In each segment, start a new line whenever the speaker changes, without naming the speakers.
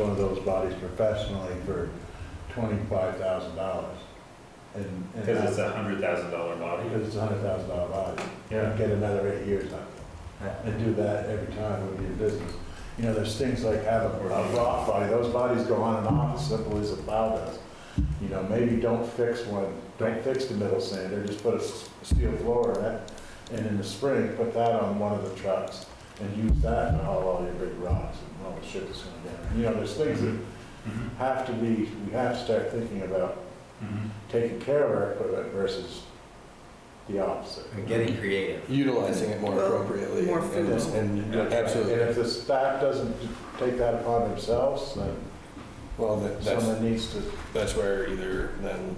one of those bodies professionally for twenty-five thousand dollars. And. and
Because it's a hundred thousand dollar body.
Because it's a hundred thousand dollar body.
Yeah.
Get another eight years out of it. And do that every time would be a business. You know, there's things like have a a rock body, those bodies go on and off as simple as a plow does. You know, maybe don't fix one, don't fix the middle sander, just put a s- steel floor in it. And in the spring, put that on one of the trucks and use that to haul all your big rocks and all the shit that's going down. You know, there's things that
Mhm,
have to be, we have to start thinking about
mhm.
taking care of our equipment versus the opposite.
And getting creative.
utilizing it more
Well,
appropriately.
more
and-
food.
And
Yeah.
And if
absolutely,
the staff doesn't take that upon themselves, then
well, that- that's,
someone needs to,
that's where either then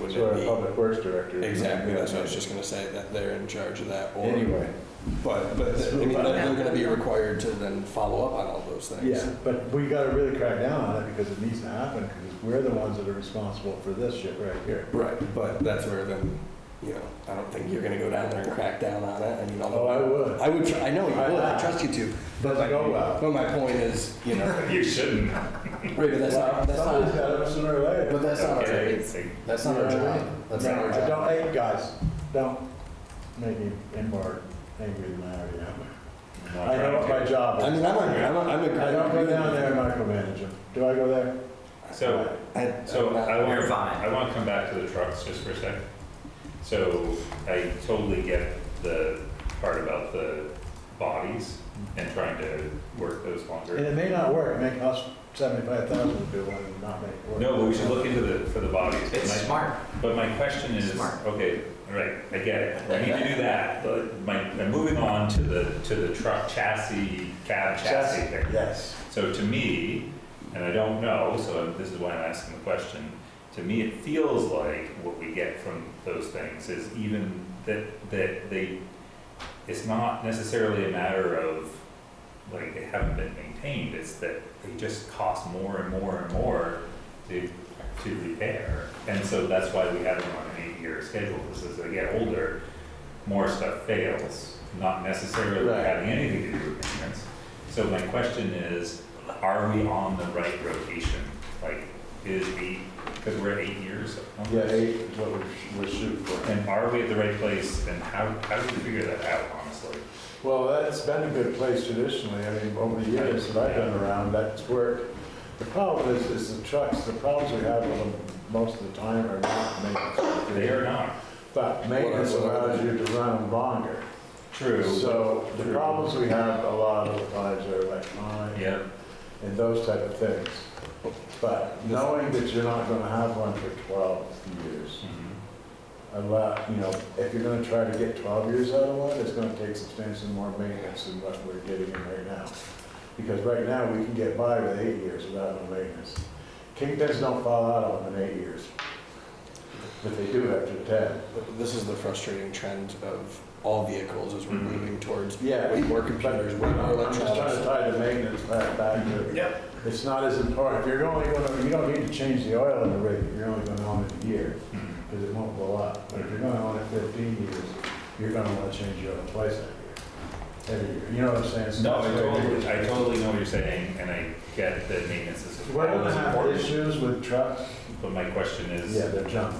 would
so our
it
public works director.
be, exactly, that's what I was just gonna say, that they're in charge of that or,
Anyway,
but, but I mean, they're they're gonna be required to then follow up on all those things.
yeah, but we gotta really crack down on it because it needs to happen, because we're the ones that are responsible for this shit right here.
Right, but that's where then, you know, I don't think you're gonna go down there and crack down on it, I mean,
Oh,
although.
I would.
I would, tr- I know you
I-
would, I trust you to,
Doesn't go well.
but my point is, you know,
You shouldn't.
right, but that's not, that's
Somebody's
not,
gotta, sooner or
but
later.
that's not our,
Okay,
job.
it's like-
that's not our job, that's not our
No,
job.
Don't, hey, guys, don't make me any more angry than I already am.
I'm not
I know what
trying
my
to.
job is.
I mean, I'm, a, I'm, a, I'm a,
I don't go down there and micromanage them. Do I go there?
So,
I,
so I
You're
want,
fine.
I want to come back to the trucks just for a second. So I totally get the part about the bodies and trying to work those
And
longer.
it may not work, make us seventy-five thousand to do one and not make it work.
No, but we should look into the, for the bodies.
It's
My-
smart.
But my question is,
Smart.
okay, all right, I get it, I need to do that, but my, I'm moving on to the, to the truck chassis, cab chassis thing.
Yes.
So to me, and I don't know, so this is why I'm asking the question, to me, it feels like what we get from those things is even that, that they, it's not necessarily a matter of, like, they haven't been maintained, it's that they just cost more and more and more to, to repair. And so that's why we have them on an eight-year schedule, is as they get older, more stuff fails, not necessarily
Right.
having anything to do with maintenance. So my question is, are we on the right rotation? Like, is we, because we're at eight years. almost.
Yeah, eight is what we're, we're shooting for.
And are we at the right place, and how, how do we figure that out, honestly?
Well, that's been a good place traditionally, I mean, over the years that I've been around, that's worked. The problem is, is the trucks, the problems we have with them most of the time are not maintenance.
They are not.
But maintenance allows you to run them longer.
True.
So the problems we have a lot of the times are electronic
Yeah,
and those type of things. But knowing that you're not gonna have one for twelve years,
Mhm.
allow, you know, if you're gonna try to get twelve years out of one, it's gonna take substantially more maintenance than what we're getting in right now. Because right now, we can get by with eight years without no maintenance. Kingpins don't fall out of them in eight years, but they do after ten.
this is the frustrating trend of all vehicles as we're
Mhm.
moving towards
Yeah.
way more
Mm-hmm. But
computers, way more
I'm just trying to
electronics.
tie the maintenance back, back to.
Yep.
It's not as important, if you're only gonna, you don't need to change the oil in the rig, if you're only gonna own it a year.
Mhm.
because it won't blow up. But if you're gonna own it fifteen years, you're gonna wanna change your oil twice every year. Every year, you know what I'm saying? So
No, I
that's why we-
totally, I totally know what you're saying, and I get that maintenance is
We're gonna
always
have
important,
issues with trucks.
but my question is,
Yeah, they're junk.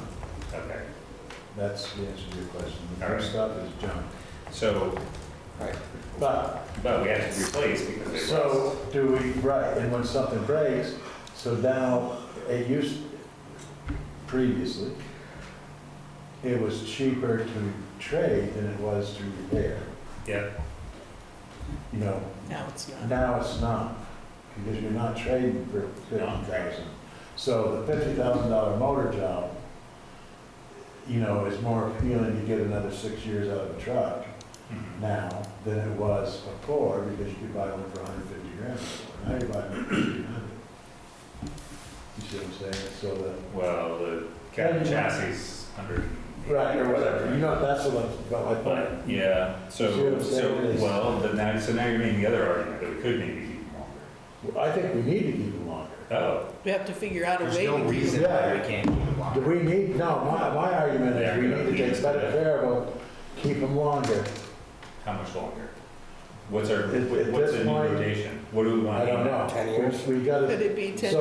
okay,
That's the answer to your question. The
All
new
right.
stuff is junk.
so,
But,
but we have to replace because they
so
rust.
do we, right, and when something breaks, so now, it used, previously, it was cheaper to trade than it was to repair,
Yeah,
you know?
Now it's not.
Now it's not, because you're not trading for fifty thousand. So the fifty thousand dollar motor job, you know, is more appealing to get another six years out of a truck
Mhm.
now than it was before, because you could buy one for hundred fifty grand. Now you're buying one for fifteen hundred. You see what I'm saying? So the
well, the cab chassis, hundred.
Right, or whatever, you know, that's what, I'm- but like,
But, yeah,
See what
so,
I'm
so,
saying is-
well, then now, so now you're making the other argument that we could maybe keep them longer.
I think we need to keep it longer.
Oh,
We have to figure out a
There's
way
no
to keep
reason
it.
why we can't keep it
Do
longer.
we need, no, my, my argument is we need to take better care of them, keep them longer.
how much longer? What's our,
At- at
what's
this
the new
point-
rotation?
What do we want?
I don't know.
Ten years?
We we gotta,
Could it be ten
So